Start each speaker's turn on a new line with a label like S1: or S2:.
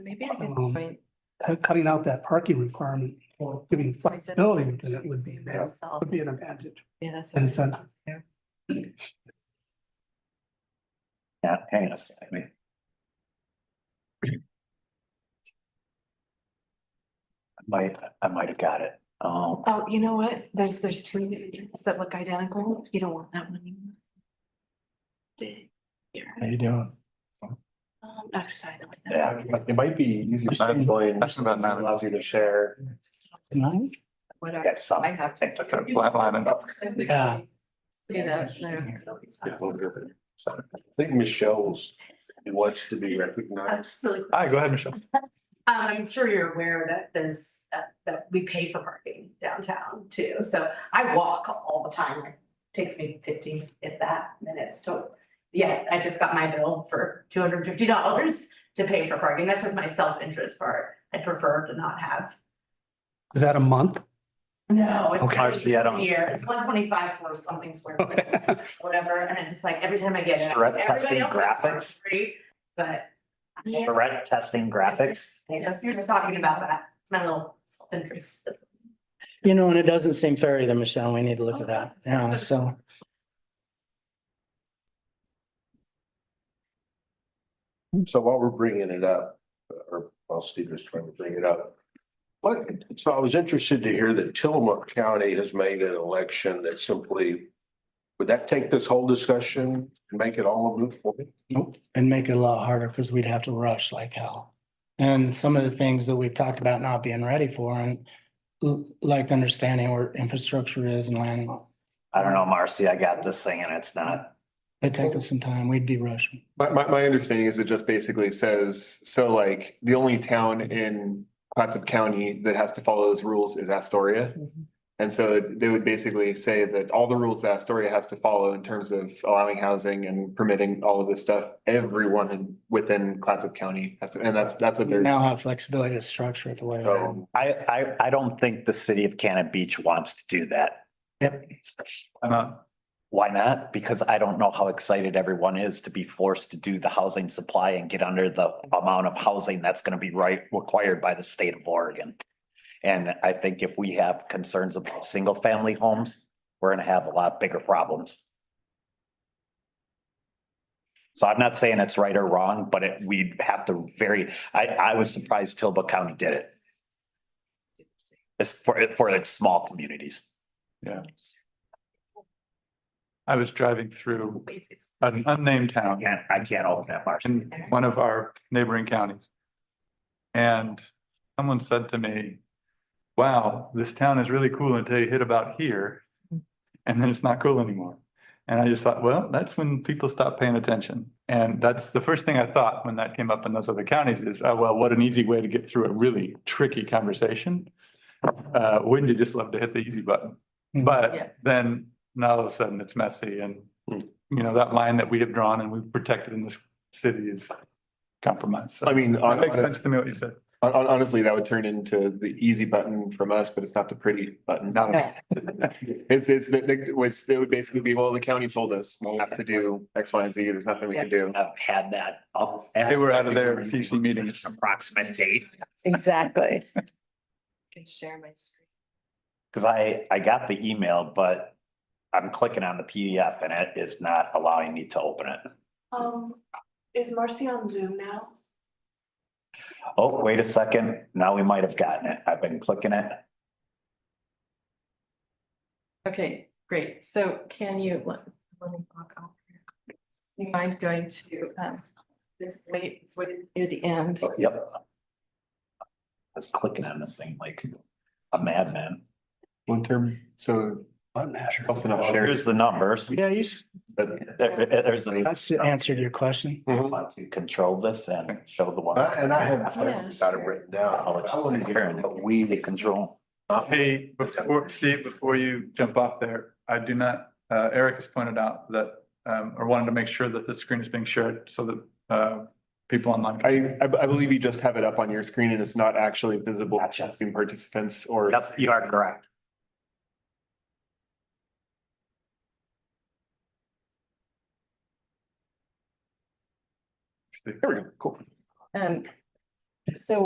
S1: Maybe a good
S2: Um,
S1: point.
S2: cut- cutting out that parking requirement or giving flexibility within it would be, there
S1: Self.
S2: would be an advantage.
S1: Yeah, that's.
S2: And so-
S1: Yeah.
S3: Yeah, hang on a second. I Might, I might have got it. Um,
S1: Oh, you know what? There's, there's two images that look identical. You don't want that one anymore. Here.
S4: How you doing?
S1: Um, actually, I don't. want that.
S3: Yeah.
S4: It might be easier.
S3: Just enjoy-
S4: That's about nine. Allows you to share.
S3: I
S1: Whatever.
S3: got some.
S1: I have.
S3: I took a flat line and up.
S2: Yeah.
S1: Do that, no.
S5: think Michelle's wants to be
S1: uh,
S5: recognized.
S6: That's really quick.
S4: All right, go ahead, Michelle.
S6: Um, I'm sure you're aware that there's, uh, that we pay for parking downtown too, so I walk all the time. It Takes me fifteen, if that, minutes to, yeah, I just got my bill for two hundred and fifty dollars to pay for parking. That's just my self-interest part. I prefer to not have.
S2: Is that a month?
S6: No, it's.
S3: Okay, I see, I don't-
S6: Here, it's one twenty-five for something square foot, whatever, and it's just like every time I get it,
S3: Stress
S6: everybody
S3: testing
S6: else is for
S3: graphics.
S6: free, but. Yeah.
S3: Direct testing graphics.
S1: Yes.
S6: You're just talking about that. It's my little self-interest.
S7: You know, and it doesn't seem fair either, Michelle. We need to look at that. Yeah, so.
S5: So while we're bringing it up, or while Steve is trying to bring it up. What, so I was interested to hear that Tillamook County has made an election that simply, would that take this whole discussion and make it all a moot point?
S7: Nope, and make it a lot harder because we'd have to rush like hell. And some of the things that we've talked about not being ready for and l- like understanding where infrastructure is and land,
S3: I don't know, Marcy, I got this thing and it's not.
S7: it'd take us some time. We'd be rushing.
S4: My, my, my understanding is it just basically says, so like, the only town in Clatsop County that has to follow those rules is Astoria. And so they would basically say that all the rules that Astoria has to follow in terms of allowing housing and permitting all of this stuff, everyone in- within Clatsop County has to, and that's, that's what
S7: We
S4: they're.
S7: now have flexibility to structure it the way. we
S5: So
S3: I, I, I don't think the city of Cannon Beach wants to do that.
S7: Yep.
S4: Why not?
S3: Why not? Because I don't know how excited everyone is to be forced to do the housing supply and get under the amount of housing that's gonna be right, required by the state of Oregon. And I think if we have concerns about single family homes, we're gonna have a lot bigger problems. So I'm not saying it's right or wrong, but it, we'd have to very, I, I was surprised Tillamook County did it. It's for, for its small communities.
S8: I was driving through
S6: Wait, it's-
S8: an unnamed town
S3: Yeah, I can't open that, Marcy.
S8: in one of our neighboring counties. And someone said to me, wow, this town is really cool until you hit about here. And then it's not cool anymore. And I just thought, well, that's when people stop paying attention. And that's the first thing I thought when that came up in those other counties is, oh, well, what an easy way to get through a really tricky conversation. Uh, wouldn't you just love to hit the easy button?
S1: Yeah.
S8: But then now all of a sudden it's messy and, you know, that line that we have drawn and we've protected in this city is compromised. So
S4: I mean,
S8: That makes
S4: honest-
S8: sense to me what you said.
S4: Hon- hon- honestly, that would turn into the easy button from us, but it's not the pretty button.
S8: Not at all.
S4: It's, it's, the- the- was, it would basically be, well, the county told us, we'll have to do X, Y, and Z, there's nothing we can do.
S3: have had that up.
S8: They were out of their CC meetings.
S3: Approximate date,
S9: Exactly.
S1: Can share my screen.
S3: because I, I got the email, but I'm clicking on the PDF and it is not allowing me to open it.
S1: Um, is Marcy on Zoom now?
S3: Oh, wait a second, now we might have gotten it. I've been clicking it.
S1: Okay, great. So can you, let, let me walk out here. You mind going to, um, this wait, it's wait near the end.
S3: Oh, Yep. I was clicking on this thing like a madman.
S4: One term, so
S2: Button
S4: it's
S2: masher.
S4: also not shared,
S3: Oh, Here's the numbers.
S7: Yeah, you, s-
S4: but
S3: There- there's the,
S7: that's answered your question.
S4: Mm-hmm.
S3: want to control this and show the one.
S5: I- Uh, And I have,
S1: Yeah.
S5: I've got it written down. I
S3: I'll just
S5: want
S3: sit
S5: to
S3: here
S5: hear
S3: and
S5: what we
S3: We the control.
S8: Hey, before, Steve, before you jump off there, I do not, uh, Eric has pointed out that, um, or wanted to make sure that the screen is being shared so that, uh, people online. can-
S4: I, I, I believe you just have it up on your screen and it's not actually visible
S3: Gotcha.
S4: to Zoom participants or.
S3: Yep, you are correct.
S4: There we go, cool.
S1: And So